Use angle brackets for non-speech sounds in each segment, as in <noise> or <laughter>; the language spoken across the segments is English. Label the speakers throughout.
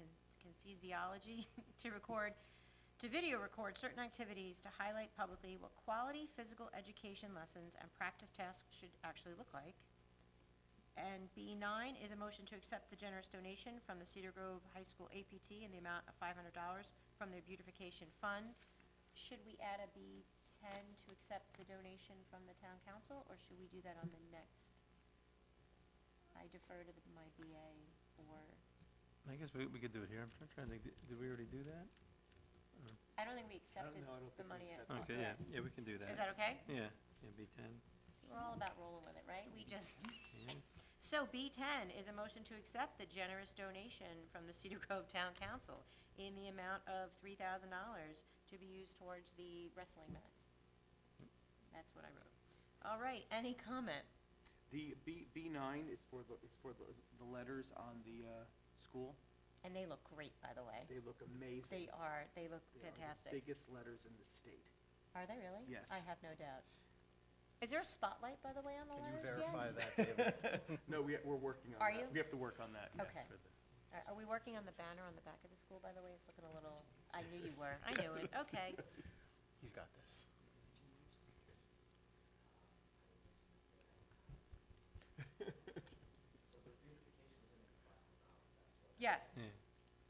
Speaker 1: anesthesiology <laughs> to record, to video record certain activities to highlight publicly what quality physical education lessons and practice tasks should actually look like. And B nine is a motion to accept the generous donation from the Cedar Grove High School APT in the amount of five hundred dollars from their beautification fund. Should we add a B ten to accept the donation from the town council, or should we do that on the next? I defer to the- my BA or,
Speaker 2: I guess we, we could do it here. I'm try- trying to think, did- did we already do that?
Speaker 1: I don't think we accepted
Speaker 3: no, I don't
Speaker 1: the
Speaker 3: think we
Speaker 1: money. at-
Speaker 3: accepted
Speaker 2: Okay, yeah, yeah, we can do that.
Speaker 1: Is that okay?
Speaker 2: Yeah, yeah, B ten,
Speaker 1: See, we're all about rolling with it, right? We just.
Speaker 2: yeah.
Speaker 1: So B ten is a motion to accept the generous donation from the Cedar Grove Town Council in the amount of three thousand dollars to be used towards the wrestling mat. That's what I wrote. All right, any comment?
Speaker 3: The B, B nine is for the, is for the, the letters on the, uh, school.
Speaker 1: And they look great, by the way.
Speaker 3: They look amazing.
Speaker 1: They are, they look
Speaker 3: They are the
Speaker 1: fantastic.
Speaker 3: Biggest letters in the state.
Speaker 1: Are they really?
Speaker 3: Yes.
Speaker 1: I have no doubt. Is there a spotlight, by the way, on the
Speaker 4: Can you
Speaker 1: letters yet?
Speaker 4: verify that, David?
Speaker 2: <laughs>
Speaker 3: No, we, we're working on that.
Speaker 1: Are you?
Speaker 3: We have to work on that, yes.
Speaker 1: Okay. Are, are we working on the banner on the back of the school, by the way? It's looking a little, I knew you were. I knew it. Okay.
Speaker 4: <laughs> He's got this.
Speaker 1: <laughs> Yes.
Speaker 2: Yeah.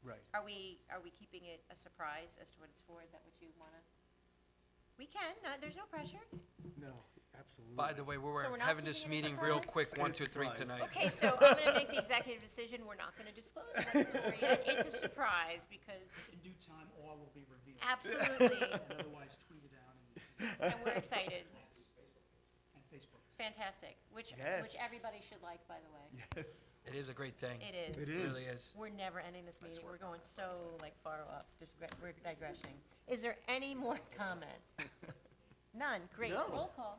Speaker 4: Right.
Speaker 1: Are we, are we keeping it a surprise as to what it's for? Is that what you wanna? We can, no, there's no pressure.
Speaker 3: No, absolutely.
Speaker 5: By
Speaker 3: <laughs>
Speaker 5: the way, we
Speaker 1: So we're
Speaker 5: we're
Speaker 1: not
Speaker 5: having this
Speaker 1: keeping it a
Speaker 5: meeting real
Speaker 1: surprise?
Speaker 5: quick, one, two, three
Speaker 3: Surprise.
Speaker 5: tonight.
Speaker 1: Okay,
Speaker 4: <laughs>
Speaker 1: so I'm gonna make the executive decision, we're not gonna disclose what it's for yet. It's a surprise because
Speaker 6: In due time, all will be revealed.
Speaker 1: absolutely,
Speaker 6: And otherwise tweeted out and,
Speaker 1: and we're excited.
Speaker 6: and Facebook.
Speaker 1: Fantastic, which, which
Speaker 4: Yes.
Speaker 1: everybody should like, by the way.
Speaker 4: Yes.
Speaker 5: It is a great thing.
Speaker 1: It is.
Speaker 4: It
Speaker 5: It really
Speaker 4: is.
Speaker 5: is.
Speaker 1: We're never ending this meeting, we're going so like far up, just, re- we're digressing. Is there any more comment? None, great,
Speaker 3: No.
Speaker 1: roll call.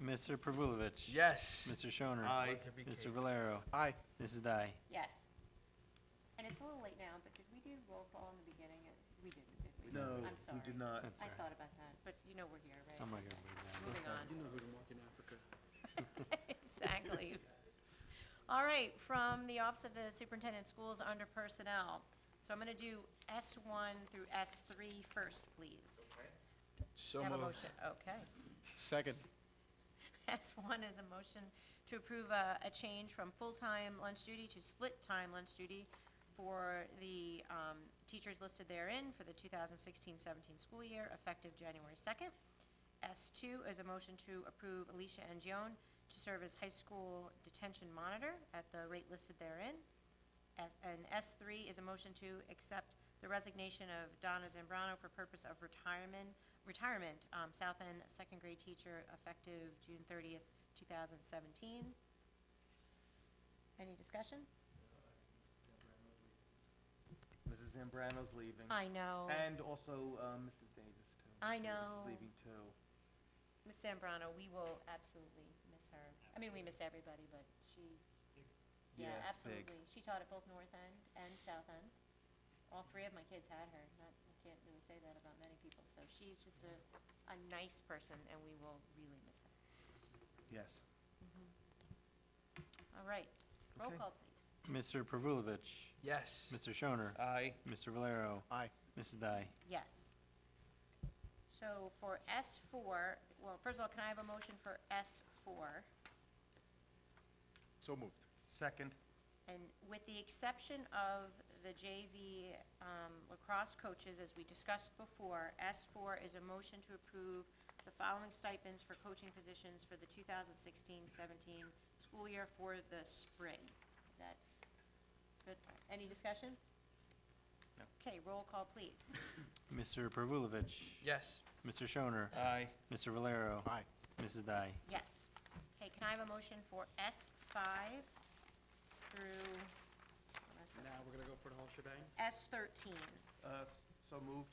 Speaker 2: Mr. Pervulovich.
Speaker 5: Yes.
Speaker 2: Mr. Schoner.
Speaker 3: Aye.
Speaker 2: Mr. Valero.
Speaker 4: Aye.
Speaker 2: Mrs. Dai.
Speaker 1: Yes. And it's a little late now, but did we do roll call in the beginning? or- We didn't, did we?
Speaker 3: No,
Speaker 1: I'm sorry.
Speaker 3: we did not.
Speaker 2: That's
Speaker 1: I
Speaker 2: all right.
Speaker 1: thought about that, but you know we're here,
Speaker 2: I'm
Speaker 1: right?
Speaker 2: not gonna believe that.
Speaker 1: Moving on.
Speaker 3: know who to mark in Africa.
Speaker 1: <laughs> Exactly. All right, from the Office of the Superintendent Schools under Personnel. So I'm going to do S1 through S3 first, please.
Speaker 5: So
Speaker 1: Have a
Speaker 5: moved.
Speaker 1: motion. Okay. <laughs>
Speaker 4: Second.
Speaker 1: S1 is a motion to approve a, a change from full-time lunch duty to split-time lunch duty for the um, teachers listed therein for the 2016-17 school year, effective January 2nd. S2 is a motion to approve Alicia Angione to serve as high school detention monitor at the rate listed therein. S- And S3 is a motion to accept the resignation of Donna Zambrano for purpose of retirement, retirement, um, South End second grade teacher effective June 30th, 2017. Any discussion?
Speaker 3: Mrs. Zambrano's leaving.
Speaker 1: I know.
Speaker 3: And also, uh, Mrs. Davis too.
Speaker 1: I
Speaker 3: Davis is
Speaker 1: know.
Speaker 3: Leaving too.
Speaker 1: Ms. Zambrano, we will absolutely miss her. I mean, we miss everybody, but she, yeah,
Speaker 3: it's big.
Speaker 1: absolutely. She taught at both North End and South End. All three of my kids had her. Not, I can't really say that about many people. So she's just a, a nice person, and we will really miss her.
Speaker 3: Yes.
Speaker 1: All right, roll
Speaker 4: Okay.
Speaker 1: call, please.
Speaker 2: Mr. Pervulovich.
Speaker 5: Yes.
Speaker 2: Mr. Schoner.
Speaker 3: Aye.
Speaker 2: Mr. Valero.
Speaker 4: Aye.
Speaker 2: Mrs. Dai.
Speaker 1: Yes. So for S four, well, first of all, can I have a motion for S four?
Speaker 4: So moved.
Speaker 3: Second.
Speaker 1: And with the exception of the JV um, lacrosse coaches, as we discussed before, S4 is a motion to approve the following stipends for coaching positions for the 2016-17 school year for the spring. Is that good? Any discussion?
Speaker 3: No.
Speaker 1: Okay, roll call, please.
Speaker 2: Mr. Pervulovich.
Speaker 5: Yes.
Speaker 2: Mr. Schoner.
Speaker 3: Aye.
Speaker 2: Mr. Valero.
Speaker 4: Aye.
Speaker 2: Mrs. Dai.
Speaker 1: Yes. Okay, can I have a motion for S5 through,
Speaker 6: Now, we're gonna go for the whole shebang?
Speaker 1: S13?
Speaker 3: Uh, s- so moved.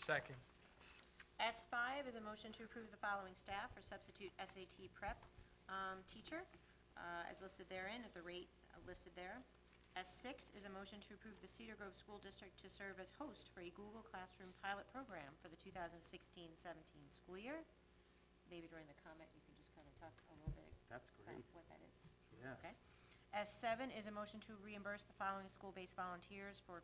Speaker 5: Second.
Speaker 1: S5 is a motion to approve the following staff or substitute SAT prep um, teacher uh, as listed therein at the rate uh, listed there. S6 is a motion to approve the Cedar Grove School District to serve as host for a Google Classroom pilot program for the 2016-17 school year. Maybe during the comment, you can just kind of talk a little bit
Speaker 3: That's
Speaker 1: about
Speaker 3: great,
Speaker 1: what that is.
Speaker 3: yeah.
Speaker 1: Okay. S7 is a motion to reimburse the following school-based volunteers for